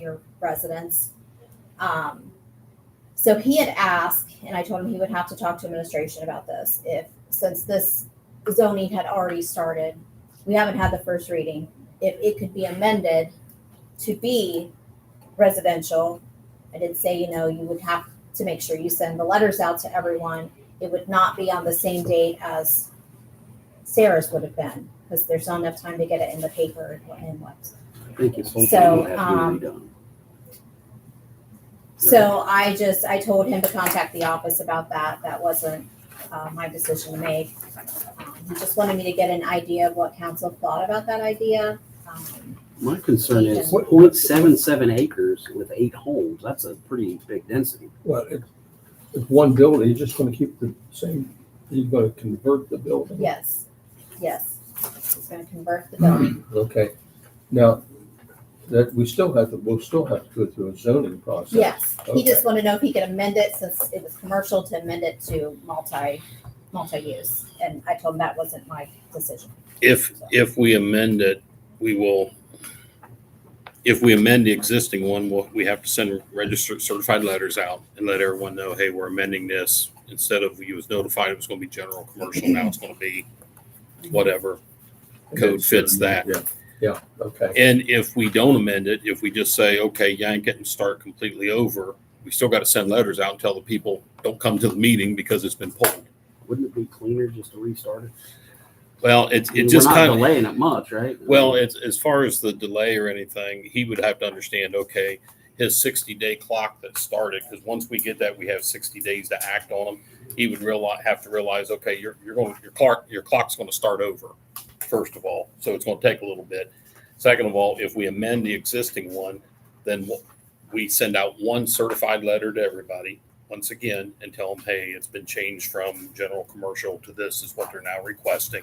your residents. Um, so he had asked, and I told him he would have to talk to administration about this, if, since this zoning had already started, we haven't had the first reading, if it could be amended to be residential. I did say, you know, you would have to make sure you send the letters out to everyone. It would not be on the same date as Sarah's would have been, because there's not enough time to get it in the paper and what- and what. I think it's something So, that has to um, be redone. So I just, I told him to contact the office about that. That wasn't uh, my decision to make. Um, He just wanted me to get an idea of what council thought about that idea. Um, My concern is What- point seven seven acres with eight homes, that's a pretty big density. Well, if, if one building, you're just gonna keep the same, you're gonna convert the building. Yes, yes. He's going to convert the Mm-hmm. building. Okay, now, that, we still have to, we'll still have to go through a zoning process. Yes, he just Okay. wanted to know if he could amend it since it was commercial to amend it to multi, multi-use. And I told him that wasn't my decision. If, if we amend it, we will, if we amend the existing one, we'll, we have to send registered certified letters out and let everyone know, hey, we're amending this. Instead of you was notified it was gonna be general commercial, now it's gonna be whatever. Code fits that. Yeah, yeah, okay, And if we don't amend it, if we just say, okay, yank it and start completely over, we still gotta send letters out and tell the people, don't come to the meeting because it's been pulled. Wouldn't it be cleaner just to restart it? Well, it's, I mean, it just We're kind not of. delaying it much, right? Well, as, as far as the delay or anything, he would have to understand, okay, his sixty day clock that started, because once we get that, we have sixty days to act on them. He would realize, have to realize, okay, you're, you're going, your clock, your clock's gonna start over, first of all, so it's gonna take a little bit. Second of all, if we amend the existing one, then we'll- we send out one certified letter to everybody, once again, and tell them, hey, it's been changed from general commercial to this is what they're now requesting.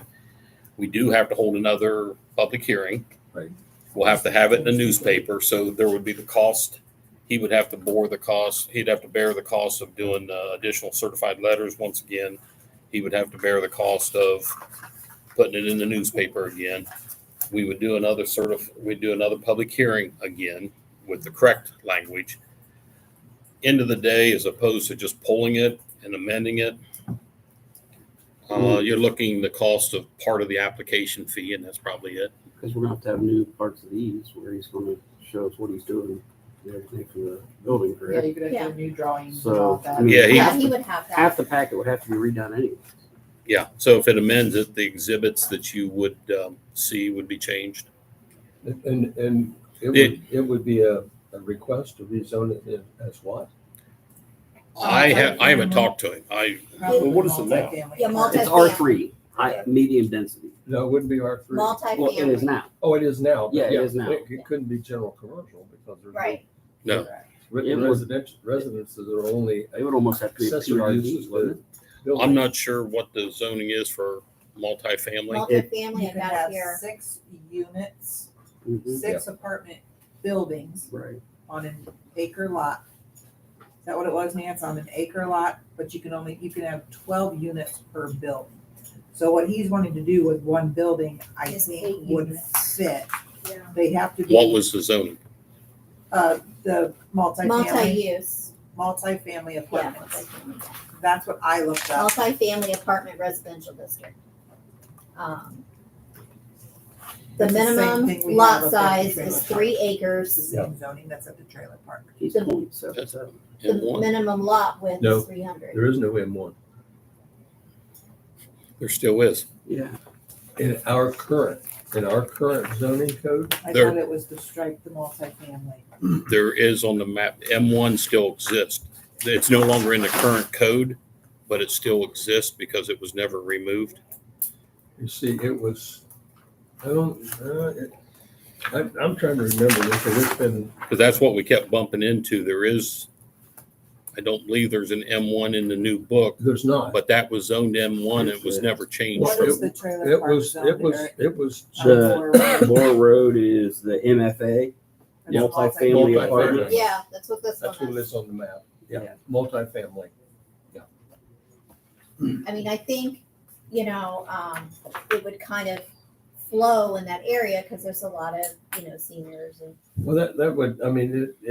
We do have to hold another public hearing. Right. We'll have to have it in the newspaper, so there would be the cost. He would have to bore the cost, he'd have to bear the cost of doing uh, additional certified letters once again. He would have to bear the cost of putting it in the newspaper again. We would do another sort of, we'd do another public hearing again with the correct language. End of the day, as opposed to just pulling it and amending it, uh, you're looking the cost of part of the application fee, and that's probably it. Because we're gonna have to have new parts of these where he's gonna show us what he's doing, and everything for the building, Yeah, correct? you could have done new drawings and all So. I that. mean, Yeah, he- Yeah, half he the- would have that. Half the packet would have to be redone anyway. Yeah, so if it amends it, the exhibits that you would um, see would be changed. and, and it It- would, it would be a, a request to rezone it as what? I have, I haven't talked to him. I, Probably what is it now? multifamily. Yeah, multi- It's R three, high, medium density. No, it wouldn't be R three. Well, it is Multi-family, now. Oh, it is now. but Yeah, it is now. It it couldn't be general commercial because there's. no- right. No. It Written would- residential, residences are only It would almost have to be a accessory uses, PRD, but wouldn't I'm not sure what the zoning is for Multi-family multifamily. You and could that's have here. six units, it? Mhm. six apartment buildings Right. on an acre lot. Is that what it was, Nancy? On an acre lot, but you can only, you can have twelve units per building. So what he's wanting to do with one building, I Is eight think would units. fit. They have to What be, was the zoning? uh, the multifamily, Multi-use, multifamily yeah. apartments. multifamily. That's what I looked up. multifamily apartment residential district. Um, The minimum lot size is three It's the acres, same zoning that's at the trailer park. He's The- point seven seven. the And one, minimum lot width No. is three hundred. There is no M one. there still is. Yeah. In our current, in our current zoning code, I There- thought it was to strike the multifamily. There is on the map, M1 still exists. It's no longer in the current code, but it still exists because it was never removed. you see, it was, I don't, uh, it- I'm, I'm trying to remember this, but it's been, Because that's what we kept bumping into. There is, I don't believe there's an M1 in the new book, there's not. but that was zoned M1. It was never changed. What Well, is it- the trailer It park was, zone it was, there? it was, Uh, The Moore Road is the MFA, That's multifamily apartment. Yeah, that's what this that's one what it is. is on the map. Yeah, Yeah. multifamily. I mean, I think, you know, um, it would kind of flow in that area because there's a lot of you know, seniors and Well, that, that would, I mean, it,